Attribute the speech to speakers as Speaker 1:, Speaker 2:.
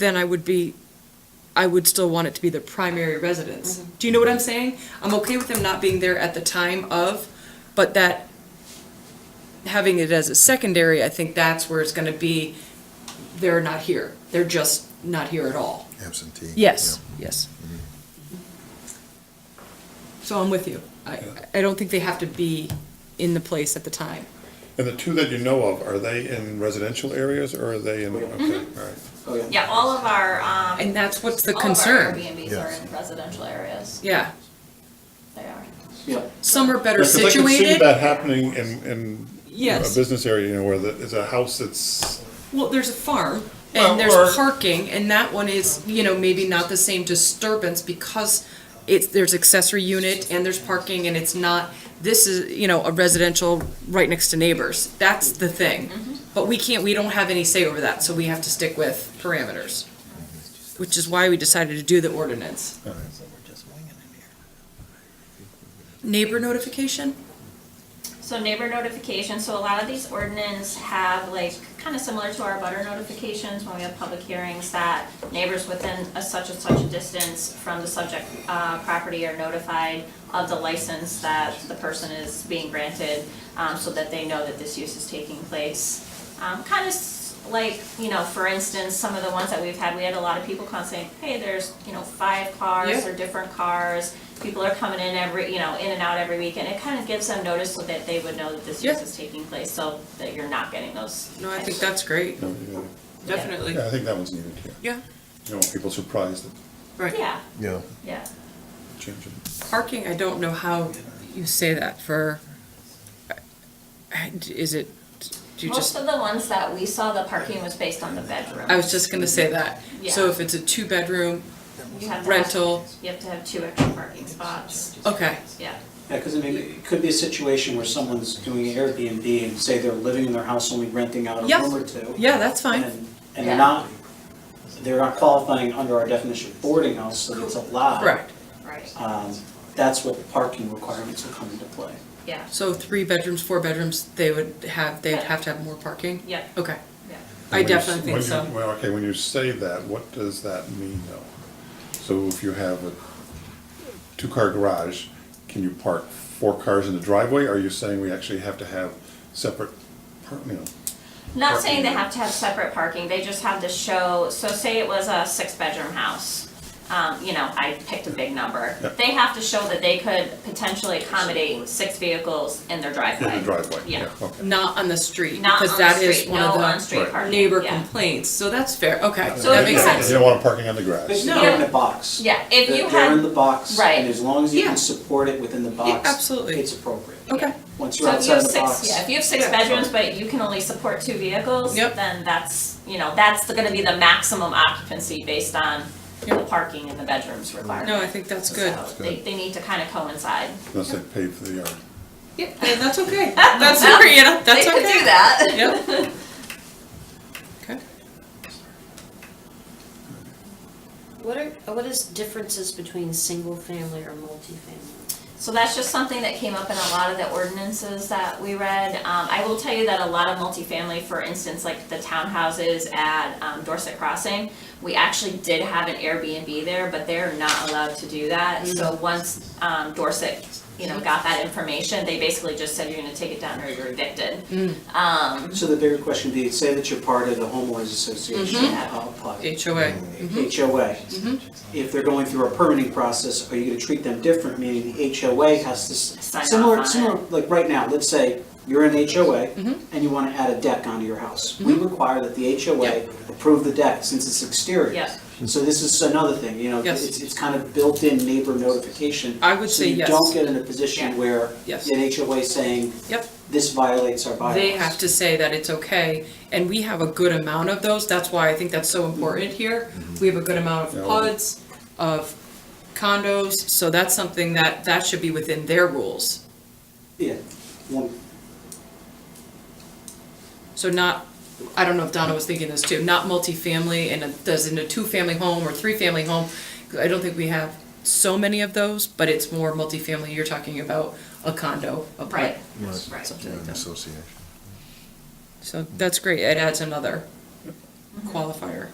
Speaker 1: then I would be, I would still want it to be the primary residence. Do you know what I'm saying? I'm okay with them not being there at the time of, but that, having it as a secondary, I think that's where it's gonna be, they're not here. They're just not here at all.
Speaker 2: absentee.
Speaker 1: Yes, yes. So I'm with you. I, I don't think they have to be in the place at the time.
Speaker 3: And the two that you know of, are they in residential areas or are they in,
Speaker 1: Mm-hmm.
Speaker 3: okay, all right.
Speaker 4: Oh, yeah.
Speaker 5: Yeah, all of our, um.
Speaker 1: And that's what's the
Speaker 5: all of our
Speaker 1: concern.
Speaker 5: Airbnbs are
Speaker 2: Yes.
Speaker 5: in residential areas.
Speaker 1: Yeah.
Speaker 5: They are.
Speaker 4: Yeah.
Speaker 1: Some are better
Speaker 3: Yeah, 'cause I can see
Speaker 1: situated.
Speaker 3: that happening in, in you know, a
Speaker 1: Yes.
Speaker 3: business area, you know, where the- it's a house that's,
Speaker 1: Well, there's a farm
Speaker 3: Well,
Speaker 1: and
Speaker 3: or-
Speaker 1: there's parking and that one is, you know, maybe not the same disturbance because it's, there's accessory unit and there's parking and it's not, this is, you know, a residential right next to neighbors. That's the thing.
Speaker 3: Mm-hmm.
Speaker 1: But we can't, we don't have any say over that, so we have to stick with parameters, which is why we decided to do the ordinance. Neighbor notification?
Speaker 5: So neighbor notification, so a lot of these ordinance have like, kind of similar to our butter notifications when we have public hearings that neighbors within a such and such a distance from the subject, uh, property are notified of the license that the person is being granted, um, so that they know that this use is taking place. Um, kind of like, you know, for instance, some of the ones that we've had, we had a lot of people come saying, hey, there's, you know, five cars
Speaker 1: Yeah.
Speaker 5: or different cars. People are coming in every, you know, in and out every week, and it kind of gives them notice so that they would know that this use
Speaker 1: Yeah.
Speaker 5: is taking place, so that you're not getting those.
Speaker 1: No, I
Speaker 5: types
Speaker 1: think
Speaker 5: of-
Speaker 1: that's great,
Speaker 3: you know, you know.
Speaker 1: definitely.
Speaker 3: yeah, I think that one's needed, yeah. You
Speaker 1: Yeah,
Speaker 3: don't want people surprised at
Speaker 1: right.
Speaker 5: Yeah,
Speaker 2: Yeah,
Speaker 5: yeah.
Speaker 3: changing.
Speaker 1: Parking, I don't know how you say that for, is it, do you
Speaker 5: Most
Speaker 1: just, Oh,
Speaker 5: of the ones that we saw, the parking was based on the bedroom.
Speaker 1: I was just gonna say that. So
Speaker 5: Yeah.
Speaker 1: if it's a two-bedroom,
Speaker 5: You have to have-
Speaker 1: rental-
Speaker 5: You have to have two extra parking spots,
Speaker 1: okay,
Speaker 5: yeah.
Speaker 4: Yeah, because I mean, it could be a situation where someone's doing Airbnb and say they're living in their house, only renting out a
Speaker 1: Yeah.
Speaker 4: room or two.
Speaker 1: yeah, that's fine.
Speaker 4: And, and they're
Speaker 5: Yeah.
Speaker 4: not, they're not qualifying under our definition of boarding house, so it's allowed.
Speaker 1: Correct.
Speaker 5: Right.
Speaker 4: Um, that's where the parking requirements will come into play.
Speaker 5: Yeah,
Speaker 1: So three bedrooms, four bedrooms, they would have, they'd have to have more parking?
Speaker 5: yeah,
Speaker 1: Okay,
Speaker 5: yeah.
Speaker 1: I
Speaker 3: When you-
Speaker 1: definitely think
Speaker 3: when you-
Speaker 1: so.
Speaker 3: Well, okay, when you say that, what does that mean though? So if you have a two-car garage, can you park four cars in the driveway? Are you saying we actually have to have separate, par- you know,
Speaker 5: Not saying they have to have separate parking, they just have to show, so say it was a six-bedroom house. Um, you know, I picked a big number.
Speaker 3: Yeah.
Speaker 5: They have to show that they could potentially accommodate six vehicles in their driveway.
Speaker 3: in the driveway?
Speaker 5: Yeah.
Speaker 3: Okay.
Speaker 1: Not on the street,
Speaker 5: Not on
Speaker 1: because
Speaker 5: the
Speaker 1: that is
Speaker 5: street,
Speaker 1: one
Speaker 5: no
Speaker 1: of
Speaker 5: on-street
Speaker 3: Right.
Speaker 1: the
Speaker 5: parking,
Speaker 1: neighbor
Speaker 5: yeah.
Speaker 1: complaints, so that's fair, okay,
Speaker 5: So
Speaker 1: that
Speaker 5: if
Speaker 1: makes
Speaker 5: you had-
Speaker 1: sense.
Speaker 3: You don't want them parking on the grass.
Speaker 4: But
Speaker 1: No.
Speaker 4: they're in the box.
Speaker 5: Yeah, if
Speaker 4: They're-
Speaker 5: you
Speaker 4: They're in the
Speaker 5: had,
Speaker 4: box,
Speaker 5: Right.
Speaker 4: and as long as you
Speaker 1: Yeah.
Speaker 4: can support it within the box.
Speaker 1: absolutely.
Speaker 4: It's appropriate.
Speaker 1: Okay,
Speaker 4: Once you're
Speaker 5: so if you
Speaker 4: outside
Speaker 5: have
Speaker 4: the
Speaker 5: six,
Speaker 4: box.
Speaker 5: yeah, if you have six
Speaker 1: Yeah.
Speaker 5: bedrooms, but you can only support two vehicles,
Speaker 1: Yep.
Speaker 5: then that's, you know, that's the- gonna be the maximum occupancy based on the
Speaker 1: Yep.
Speaker 5: parking and the bedrooms requirement.
Speaker 1: no, I think that's good.
Speaker 5: So they, they need to kind of coincide.
Speaker 3: Unless they pay for the yard.
Speaker 1: Yeah, and that's okay, that's, you know, that's okay.
Speaker 5: They could do that.
Speaker 1: Yep. Okay.
Speaker 6: What are, what is differences between single-family or multifamily?
Speaker 5: So that's just something that came up in a lot of the ordinances that we read. Um, I will tell you that a lot of multifamily, for instance, like the townhouses at um, Dorset Crossing, we actually did have an Airbnb there, but they're not allowed to do that. So once, um, Dorset, you know, got that information, they basically just said, you're gonna take it down or you're evicted. Um,
Speaker 4: So the bigger question would be, say that you're part of the homeowners association,
Speaker 1: Mm-hmm.
Speaker 4: uh, pod-
Speaker 1: HOA.
Speaker 4: Mm. Mm-hmm. HOA.
Speaker 1: Mm-hmm.
Speaker 4: If they're going through a permitting process, are you gonna treat them different, meaning the HOA has to,
Speaker 5: Sign
Speaker 4: s-
Speaker 5: off on
Speaker 4: similar,
Speaker 5: it.
Speaker 4: similar, like right now, let's say you're an HOA
Speaker 1: Mm-hmm.
Speaker 4: and you wanna add a deck onto your house. We require that the HOA approve the deck since it's exterior.
Speaker 5: Yeah.
Speaker 4: So this is another thing, you know,
Speaker 1: Yes.
Speaker 4: it's, it's kind of built-in neighbor notification.
Speaker 1: I would say yes.
Speaker 4: So you don't get in a
Speaker 5: Yeah.
Speaker 4: position where
Speaker 1: Yes.
Speaker 4: an HOA saying,
Speaker 1: Yep.
Speaker 4: this violates our bylaws.
Speaker 1: They have to say that it's okay, and we have a good amount of those, that's why I think that's so important here. We have a good amount
Speaker 3: Yeah.
Speaker 1: of PUDs, of condos, so that's something that, that should be within their rules.
Speaker 4: Yeah, one,
Speaker 1: So not, I don't know if Donna was thinking this too, not multifamily and it does in a two-family home or three-family home. I don't think we have so many of those, but it's more multifamily, you're talking about a condo, a PUD.
Speaker 5: Right,
Speaker 2: Right.
Speaker 5: right.
Speaker 1: something
Speaker 2: Yeah,
Speaker 1: like
Speaker 2: an
Speaker 1: that.
Speaker 2: association.
Speaker 1: So that's great, it adds another qualifier.